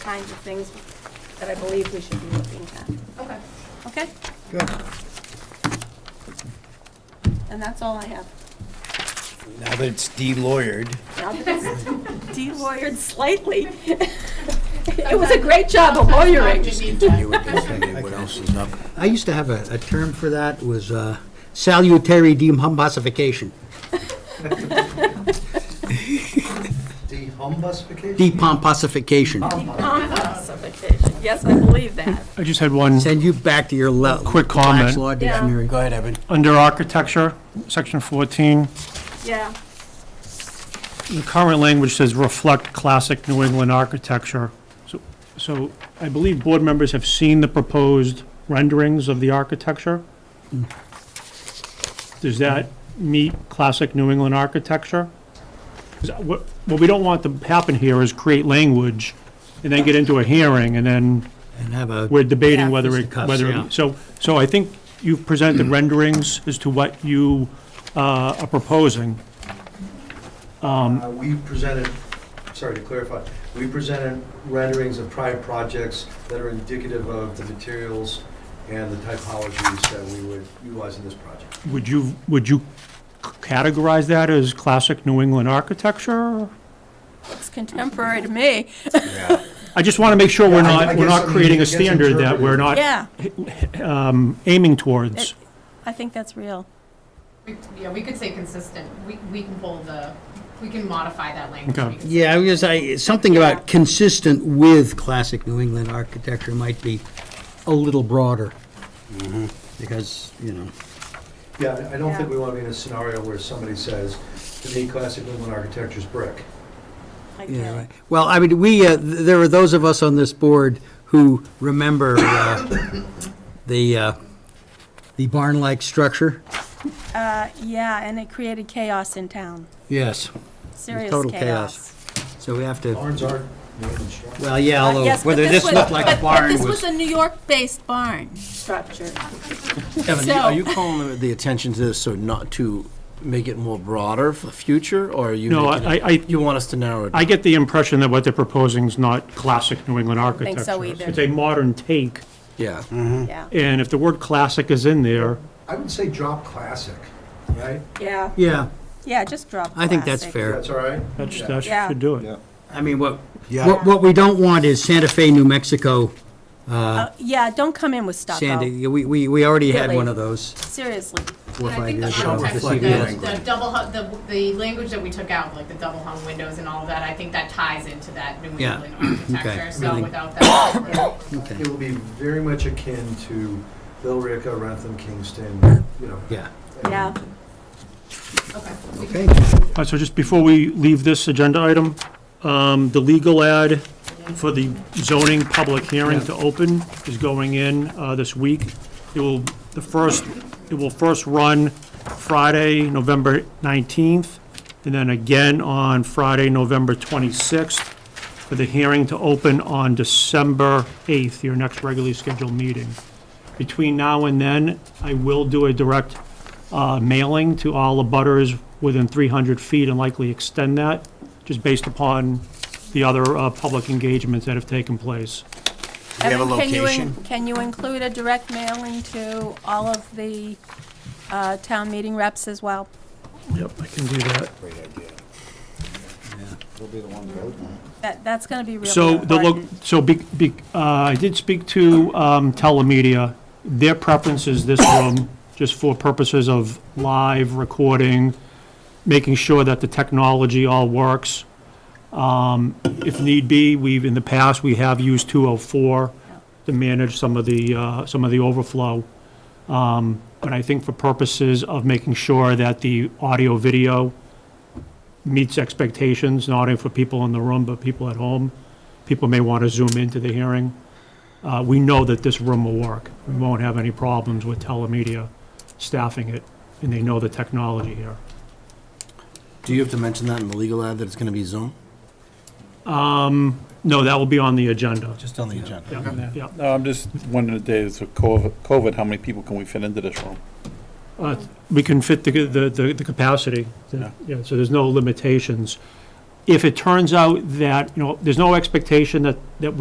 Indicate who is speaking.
Speaker 1: kinds of things that I believe we should be looking at,
Speaker 2: Okay.
Speaker 1: okay?
Speaker 3: Good.
Speaker 1: And that's all I have.
Speaker 3: Now that it's de-lawyered,
Speaker 1: Now that it's De-lawyered slightly. It was a great job of lawyering.
Speaker 4: Continue with this, and then what else is up?
Speaker 5: I used to have a, a term for that, was uh, salutary dehumbosification,
Speaker 6: Dehumbusification?
Speaker 5: depomposification.
Speaker 1: Yes, I believe that.
Speaker 7: I just had one,
Speaker 5: Send you back to your le-
Speaker 7: Quick
Speaker 5: Black's
Speaker 7: comment.
Speaker 5: Law Dictionary.
Speaker 4: Go ahead, Evan.
Speaker 7: under architecture, section 14,
Speaker 1: Yeah,
Speaker 7: the current language says reflect classic New England architecture. So- So I believe board members have seen the proposed renderings of the architecture. Does that meet classic New England architecture? 'Cause What what we don't want to happen here is create language and then get into a hearing and then
Speaker 5: And have a,
Speaker 7: we're debating
Speaker 1: Yeah.
Speaker 7: whether it,
Speaker 5: Cuffs,
Speaker 7: whether,
Speaker 5: yeah.
Speaker 7: it- so, so I think you've presented renderings as to what you uh, are proposing.
Speaker 6: Uh, We presented, sorry to clarify, we presented renderings of prior projects that are indicative of the materials and the typologies that we would utilize in this project.
Speaker 7: Would you, would you categorize that as classic New England architecture?
Speaker 1: looks contemporary to me.
Speaker 4: Yeah.
Speaker 7: I just want to make sure we're
Speaker 6: Yeah, I- I
Speaker 7: not, we're
Speaker 6: guess,
Speaker 7: not
Speaker 6: I mean,
Speaker 7: creating
Speaker 6: it
Speaker 7: a
Speaker 6: gets
Speaker 7: standard that we're
Speaker 6: interpreted.
Speaker 7: not
Speaker 1: Yeah,
Speaker 7: um, aiming towards.
Speaker 1: It- I think that's real.
Speaker 2: We- Yeah, we could say consistent, we, we can pull the, we can modify that language.
Speaker 7: Okay.
Speaker 2: We can say-
Speaker 5: yeah, I was, I, something about consistent with classic New England architecture might be a little broader.
Speaker 4: Mm-hmm.
Speaker 5: Because, you know,
Speaker 6: Yeah, I- I don't think we want to be in a scenario where somebody says, to me, classic New England architecture is brick.
Speaker 1: I
Speaker 5: yeah,
Speaker 1: get it.
Speaker 5: right. Well, I mean, we, uh, th- there are those of us on this board who remember uh, the, uh, the barn-like structure.
Speaker 1: Uh, yeah, and it created chaos in town,
Speaker 5: Yes.
Speaker 1: serious
Speaker 5: Total
Speaker 1: chaos.
Speaker 5: chaos. So we have to.
Speaker 6: Barns aren't New England structures.
Speaker 5: Well, yeah,
Speaker 1: Uh,
Speaker 5: although
Speaker 1: yes, but
Speaker 5: whether this
Speaker 1: was-
Speaker 5: looked like
Speaker 1: but-
Speaker 5: a
Speaker 1: but
Speaker 5: barn
Speaker 1: This was
Speaker 5: was.
Speaker 1: a New York-based barn structure.
Speaker 4: Evan,
Speaker 1: So-
Speaker 4: are you calling the attention to this so not to make it more broader for the future, or are you?
Speaker 7: No,
Speaker 4: making
Speaker 7: I-
Speaker 4: it-
Speaker 7: I- I-
Speaker 4: You want us to narrow it?
Speaker 7: I get the impression that what they're proposing is not classic New England architecture.
Speaker 1: think so either. Mm-hmm.
Speaker 7: It's a modern take,
Speaker 4: Yeah. Mm-hmm.
Speaker 1: Yeah,
Speaker 7: and if the word classic is in there,
Speaker 6: I would say drop classic, right?
Speaker 1: yeah,
Speaker 5: Yeah,
Speaker 1: yeah, just drop
Speaker 5: I think that's
Speaker 1: classic.
Speaker 5: fair.
Speaker 6: That's all right?
Speaker 7: that sh-
Speaker 6: Yeah.
Speaker 7: that
Speaker 1: Yeah.
Speaker 7: should do it.
Speaker 5: I mean, what,
Speaker 4: Yeah.
Speaker 5: what, what we don't want is Santa Fe, New Mexico,
Speaker 1: Uh, Yeah, don't come in with stucco,
Speaker 5: Sandy, we, we, we already had
Speaker 1: Really?
Speaker 5: one of those
Speaker 1: seriously.
Speaker 5: four or
Speaker 2: And I
Speaker 5: five
Speaker 2: think the
Speaker 5: years ago. with
Speaker 2: context,
Speaker 5: the
Speaker 2: of
Speaker 5: CVS.
Speaker 2: the, the double, hung- the, the language that we took out, like the double hung windows and all of that, I think that ties into that New
Speaker 5: Yeah.
Speaker 2: England architecture, so
Speaker 5: Really.
Speaker 2: without that. we're-
Speaker 5: Okay.
Speaker 6: It will be very much akin to Billerica, Rantham, Kingston, you know.
Speaker 5: Yeah,
Speaker 1: Yeah,
Speaker 2: Okay. we can-
Speaker 5: okay,
Speaker 7: All right, so just before we leave this agenda item, um, the legal ad for the zoning public hearing to open is going in uh, this week. It will, the first, it will first run Friday, November 19th, and then again on Friday, November 26th, for the hearing to open on December 8th, your next regularly scheduled meeting. Between now and then, I will do a direct uh, mailing to all the butters within 300 feet and likely extend that, just based upon the other uh, public engagements that have taken place.
Speaker 4: we have a
Speaker 1: Evan, can you in-
Speaker 4: location?
Speaker 1: Can you include a direct mailing to all of the uh, town meeting reps as well?
Speaker 7: Yep, I can do that.
Speaker 4: Great idea.
Speaker 3: We'll be the one voting on it.
Speaker 1: That, that's gonna be really
Speaker 7: So the, lo-
Speaker 1: important.
Speaker 7: so be, be, uh, I did speak to, um, telemedia. Their preference is this room, just for purposes of live recording, making sure that the technology all works. Um, if need be, we've, in the past, we have used two oh four to manage some of the, uh, some of the overflow. Um, but I think for purposes of making sure that the audio, video meets expectations, not only for people in the room, but people at home, people may want to zoom into the hearing. Uh, We know that this room will work. We won't have any problems with telemedia staffing it, and they know the technology here.
Speaker 4: Do you have to mention that in the legal ad that it's gonna be Zoom?
Speaker 7: No, that will be on the agenda.
Speaker 4: Just on the agenda.
Speaker 7: Yeah, yeah.
Speaker 8: No, I'm just wondering today, it's with COVID, COVID, how many people can we fit into this room?
Speaker 7: Uh, We can fit the, the, the the capacity.
Speaker 8: Yeah.
Speaker 7: Yeah, so there's no limitations. If it turns out that, you know, there's no expectation that, that